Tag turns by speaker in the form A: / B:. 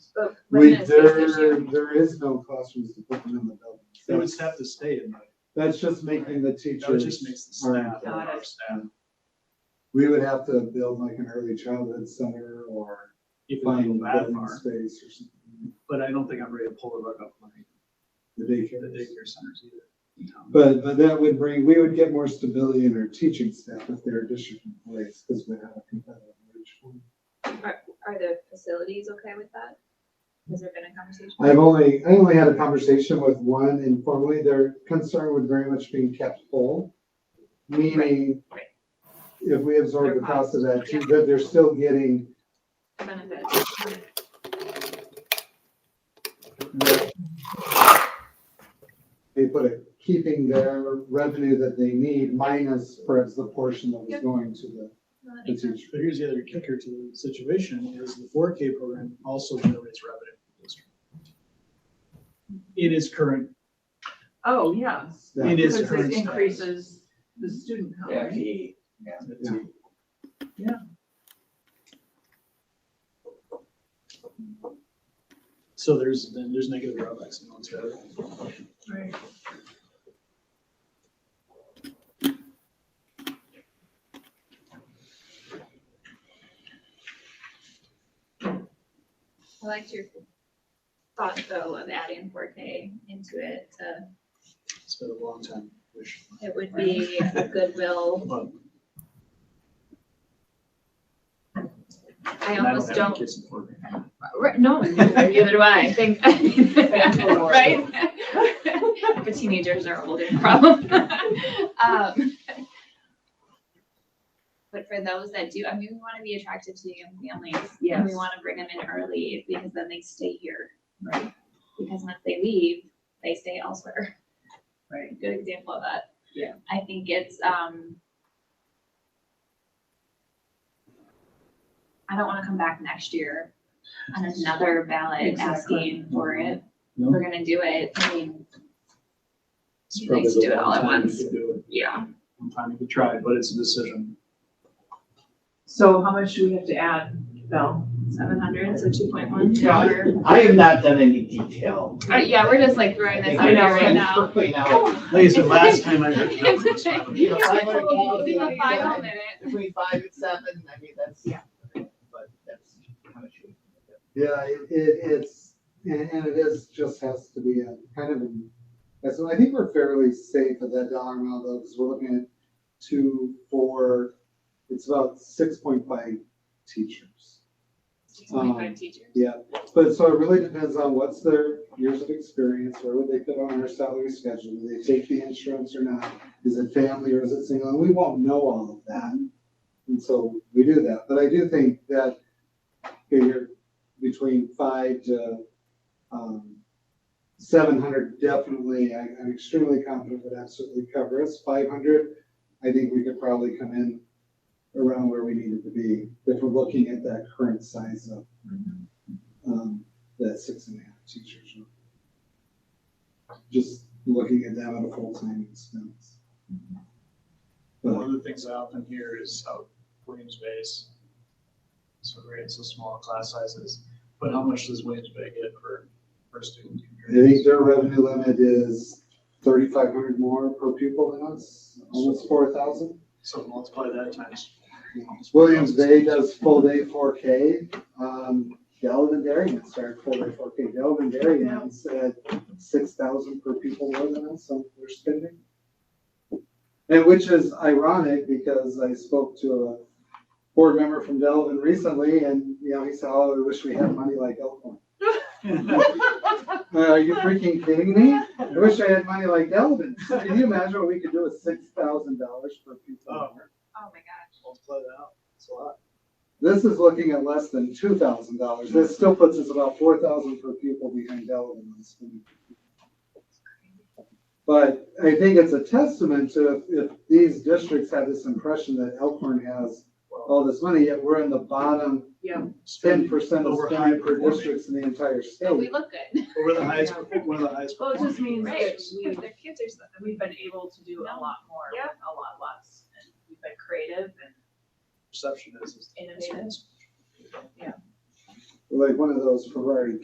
A: but
B: We,
A: Raymond says
B: there,
A: there's no-
B: there is no classrooms to put them in the building.
C: They would
B: That's,
C: have to stay at night.
B: that's just making the
C: That
B: teachers.
C: just makes the
B: more
C: staff,
B: active.
A: Got
C: our
A: it.
C: staff.
B: We would have to build like an early childhood center or
C: If I go
B: find
C: that
B: building
C: far,
B: space or something,
C: but I don't think I'm ready to pull the rug up on
B: the
C: the
B: daycare.
C: daycare centers either. Um, in town.
B: But, but that would bring, we would get more stability in our teaching staff if they're district employees, because we have a competitive wage. for them.
A: Are the facilities okay with that? Has there been a conversation?
B: I've only, I only had a conversation with one informally, their concern would very much be kept whole. Meaning,
A: Right, right.
B: if we absorb
A: Their
B: the cost of that, too,
A: yeah.
B: that they're still getting
A: Benefits.
B: they put it, keeping their revenue that they need minus perhaps the portion that was
A: Yep.
B: going to the-
A: No, that
B: the
A: makes sense.
B: teacher.
C: But here's the other kicker to the situation is the four K program also generates revenue for the district. It is current,
D: Oh, yeah.
B: Yeah.
C: It is
D: Because
C: current
D: it
C: status.
D: increases the student count,
E: Yeah,
D: right?
E: he,
B: Yeah.
C: so there's, then there's negative drawbacks and all this other.
D: Right.
A: I liked your thought though of adding four K into it. uh,
C: It's been a long time, wish.
A: It would be a goodwill.
C: But
A: I
C: And I
A: almost
C: don't have any
A: don't,
C: kids in four K.
A: Right, no, neither do I. Thank- Right? But teenagers are a whole different problem. Um, But for those that do, I mean, we want to be attractive to young families. and We
D: Yes.
A: want to bring them in early because then they stay here. Right. Because once they leave, they stay elsewhere.
D: Right.
A: good example of that.
D: Yeah.
A: I think it's, um, I don't wanna come back next year on another ballot
D: Exactly.
A: asking for it.
C: No.
A: We're gonna do it. I mean,
C: It's
A: Nice
C: probably
A: to
C: the
A: do it
C: one
A: all at
C: time you
A: once.
C: could do it.
A: yeah.
C: One time you could try, it, but it's a decision.
D: So how much do we have to add, Bill?
A: Seven hundred, so two point one.
E: Yeah. I have not done any detail.
A: yeah, we're just like throwing this out
D: I know,
A: there right
D: I'm
A: now.
E: Quickly now,
C: Like I said, last time I heard. no, it's fine.
E: you know, five hundred
A: We'll give a
E: thousand,
A: final
E: I-
A: minute.
E: between five and seven, I mean, that's.
D: Yeah.
E: But that's how much you.
B: Yeah, it, it- it's, and, and it is, just has to be a kind of, an- and so I think we're fairly safe at that dollar amount though, because we're looking at two, four, it's about six point five teachers.
A: Two point
C: Um,
A: five teachers.
B: Yeah, but so it really depends on what's their years of experience, where would they fit on our salary schedule, do they take the insurance or not? Is it family or is it single, and we won't know all of that, and so we do that, but I do think that figure between five to, um, seven hundred definitely, I, I'm extremely confident would absolutely cover us, five hundred, I think we could probably come in around where we needed to be, if we're looking at that current size of um, that six and a half teachers. are. Just looking at them at a full-time expense.
C: One
B: But
C: of the things I often hear is how Williams Bay's so great, so small class sizes, but how much does Williams Bay get per, per student?
B: I think their revenue limit is thirty-five hundred more per pupil than us, almost four thousand.
C: So multiply that times.
B: Williams Bay does full-day four K. Um, Galvin Darien started full-day four K. Galvin Darien said six thousand per pupil more than us, so we're spending. And which is ironic because I spoke to a board member from Delvin recently and, you know, he said, oh, I wish we had money like Elkhorn. Uh, Are you freaking kidding me? I wish I had money like Delvin. Can you imagine what we could do with six thousand dollars per pupil?
C: Oh,
A: Oh my gosh.
C: Multiply that out, it's a lot.
B: This is looking at less than two thousand dollars. This still puts us about four thousand per pupil behind Delavan on spending. But I think it's a testament to if, if these districts have this impression that Elkhorn has
C: Oh,
B: all this money, yet we're in the bottom
D: Yeah.
B: ten percent of
C: Over high
B: spending per
C: performing.
B: districts in the entire
A: So we
B: state.
A: look good.
C: Over the highest, one of the highest.
D: Well, Oh, it just means
A: Right.
D: that
A: Because
D: we,
A: their kids are so-
D: we've been able to do a lot more, with
A: Yeah.
D: a lot less, and we've been creative and
C: Perception is. is-
D: innovative.
B: Like one of those Ferrari